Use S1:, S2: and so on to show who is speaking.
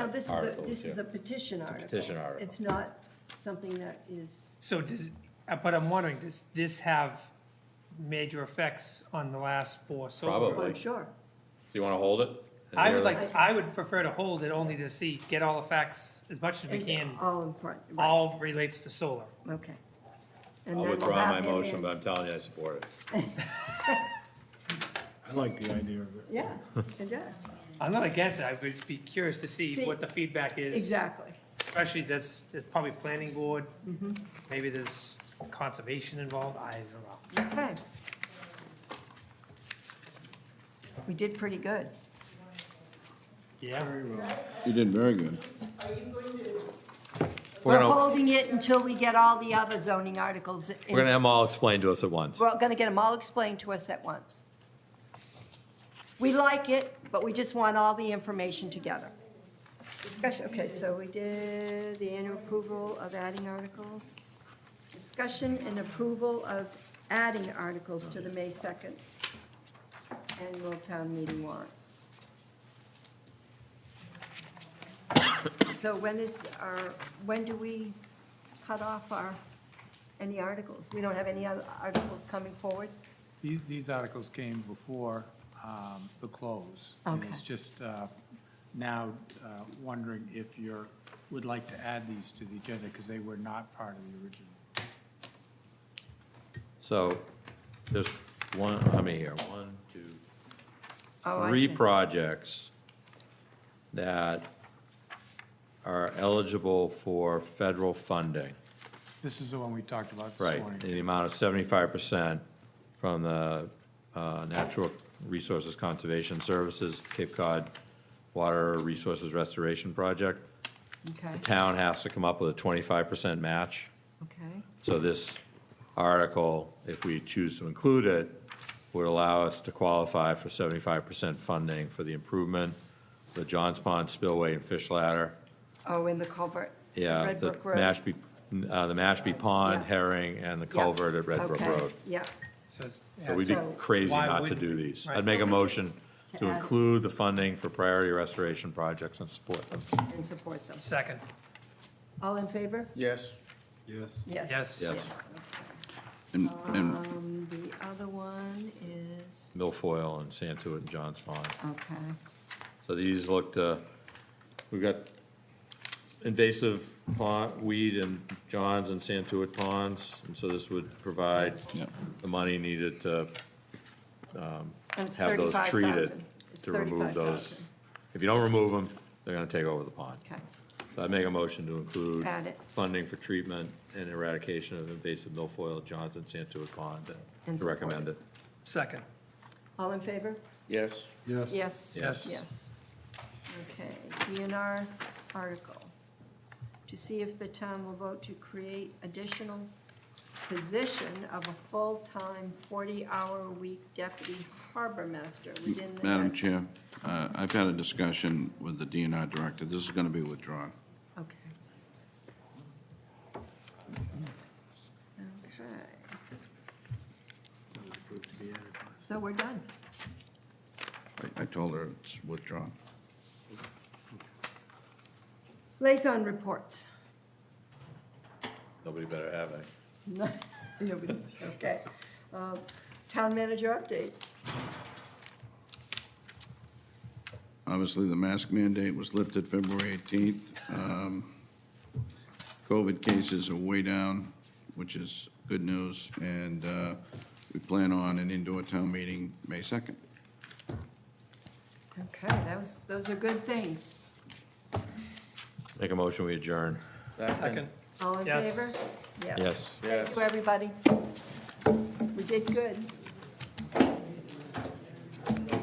S1: Oh, this is a,
S2: Articles,
S1: this is
S2: yeah.
S1: a petition article.
S2: petition article.
S1: It's not something that is,
S3: So does, uh, but I'm wondering, does this have major effects on the last four solar?
S2: Probably.
S1: I'm sure.
S2: Do you want to hold it?
S3: I would like, I would prefer to hold it only to see, get all the facts as much as we can,
S1: All in front, right,
S3: all relates to solar.
S1: okay. And
S2: I'll
S1: then we'll
S2: withdraw my
S1: have him
S2: motion,
S1: in.
S2: but I'm telling you, I support it.
S4: I like the idea of it.
S1: Yeah, yeah,
S3: I'm not against it, I would be curious to see
S1: See,
S3: what the feedback is.
S1: exactly.
S3: Especially that's, it's probably planning board,
S1: Mm-hmm.
S3: maybe there's conservation involved, I don't know.
S1: Okay. We did pretty good.
S3: Yeah,
S5: You did very good.
S2: We're
S1: We're
S2: gonna,
S1: holding it until we get all the other zoning articles. in-
S2: we're gonna have them all explained to us at once.
S1: We're gonna get them all explained to us at once. We like it, but we just want all the information together. Discussion, okay, so we did the annual approval of adding articles. Discussion and approval of adding articles to the May 2nd annual town meeting warrants. So when is our, when do we cut off our, any articles? We don't have any other articles coming forward?
S6: The- These articles came before um, the close. And it's
S1: Okay.
S6: just uh, now uh, wondering if you're, would like to add these to the agenda because they were not part of the original.
S2: So, there's one, how many here? One, two,
S1: Oh, I see.
S2: three projects that are eligible for federal funding.
S6: This is the one we talked about this
S2: Right,
S6: morning.
S2: in the amount of seventy-five percent from the uh, Natural Resources Conservation Services Cape Cod Water Resources Restoration Project.
S1: Okay,
S2: The town has to come up with a twenty-five percent match.
S1: okay.
S2: So this article, if we choose to include it, would allow us to qualify for seventy-five percent funding for the improvement, the Johns Pond spillway and fish ladder,
S1: Oh, in the culvert. the
S2: yeah,
S1: Red
S2: the
S1: Brook Road.
S2: Mashpee, uh, the Mashpee Pond
S1: Yeah.
S2: herring, and the culvert at Red Brook
S1: Okay,
S2: Road.
S1: Yeah,
S3: so it's.
S2: So we'd be
S1: So-
S2: crazy
S3: Why
S2: not to
S3: wouldn't
S2: do
S3: we?
S2: these.
S3: Right.
S2: I'd make a motion
S1: To
S2: to
S1: add it.
S2: include the funding for priority restoration projects and support them.
S1: and support them.
S3: Second,
S1: All in favor?
S4: Yes. Yes.
S1: Yes.
S3: Yes.
S2: Yes.
S5: And, and
S1: Um, the other one is,
S2: Milfoil and Santuit and Johns Pond.
S1: okay,
S2: So these looked, uh, we've got invasive pond, weed in Johns and Santuit ponds, and so this would provide
S5: Yep.
S2: the money needed to
S1: and it's
S2: have those treated,
S1: 35,000. It's
S2: to remove those.
S1: 35,000.
S2: If you don't remove them, they're gonna take over the pond.
S1: Okay,
S2: So I make a motion to include
S1: Add it.
S2: funding for treatment and eradication of invasive milfoil, Johnson, Santuit Pond,
S1: And
S2: and to
S1: support
S2: recommend it.
S3: second,
S1: all in favor?
S4: Yes. Yes.
S1: Yes.
S2: Yes.
S1: Yes. Okay, DNR article, to see if the town will vote to create additional position of a full-time, 40-hour-a-week deputy harbor master within the.
S5: Madam Chair, uh, I've had a discussion with the DNR director. This is going to be withdrawn.
S1: Okay. Okay. So we're done.
S5: I- I told her it's withdrawn.
S1: Liaison reports.
S2: Nobody better have any.
S1: Nobody, okay. Uh, Town manager updates.
S5: Obviously, the mask mandate was lifted February 18th. Um, COVID cases are way down, which is good news, and uh, we plan on an indoor town meeting May 2nd.
S1: Okay, that was, those are good things.
S2: Make a motion, we adjourn.
S3: second,
S1: All in
S3: Yes.
S1: favor?
S2: Yes.
S1: Thank you, everybody. We did good.